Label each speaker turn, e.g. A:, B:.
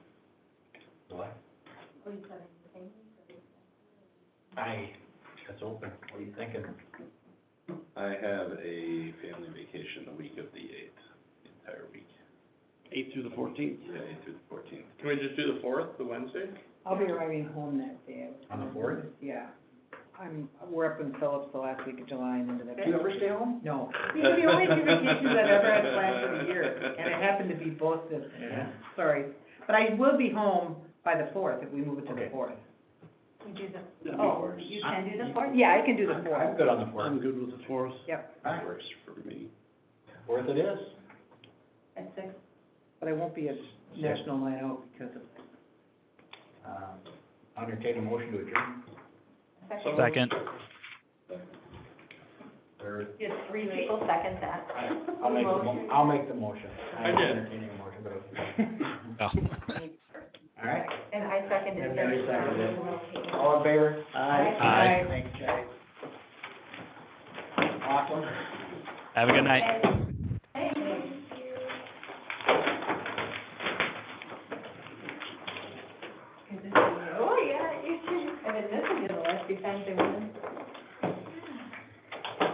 A: What do you think? Anything?
B: I, that's open, what are you thinking?
C: I have a family vacation the week of the eighth, the entire week.
D: Eighth through the fourteenth.
C: Yeah, eighth through the fourteenth.
D: Can we just do the fourth, the Wednesday?
E: I'll be arriving home that day.
B: On the fourth?
E: Yeah. I'm, we're up in Phillips the last week of July and into the.
B: Do you ever stay home?
E: No. These are the only two vacations I've ever had planned for the year, and it happened to be both this, yeah, sorry. But I will be home by the fourth, if we move it to the
B: Okay.
E: fourth.
A: You do the,
D: That
A: oh, you can do the fourth?
E: Yeah, I can do the
B: I'm
E: fourth.
B: good on the
D: I'm
B: fourth.
D: good with the fourth.
E: Yep,
B: Alright,
C: Works for me.
B: Fourth it is.
A: At six?
E: but I won't be at National Night Out because of,
B: Um, I'll entertain a motion to adjourn.
A: Second?
F: Second.
B: Third.
A: Did three people second that?
B: I'll make the mo- I'll make the motion.
D: I
B: I'm
D: did.
B: entertaining a motion, but okay.
F: Oh.
B: Alright,
A: And I seconded
B: And
A: it.
B: I seconded all in favor?
A: Aye.
F: Aye.
B: Thanks, Jay. Awesome.
F: Have a good night.
A: Thank you. Oh, yeah, you should, and then this will be the last few times they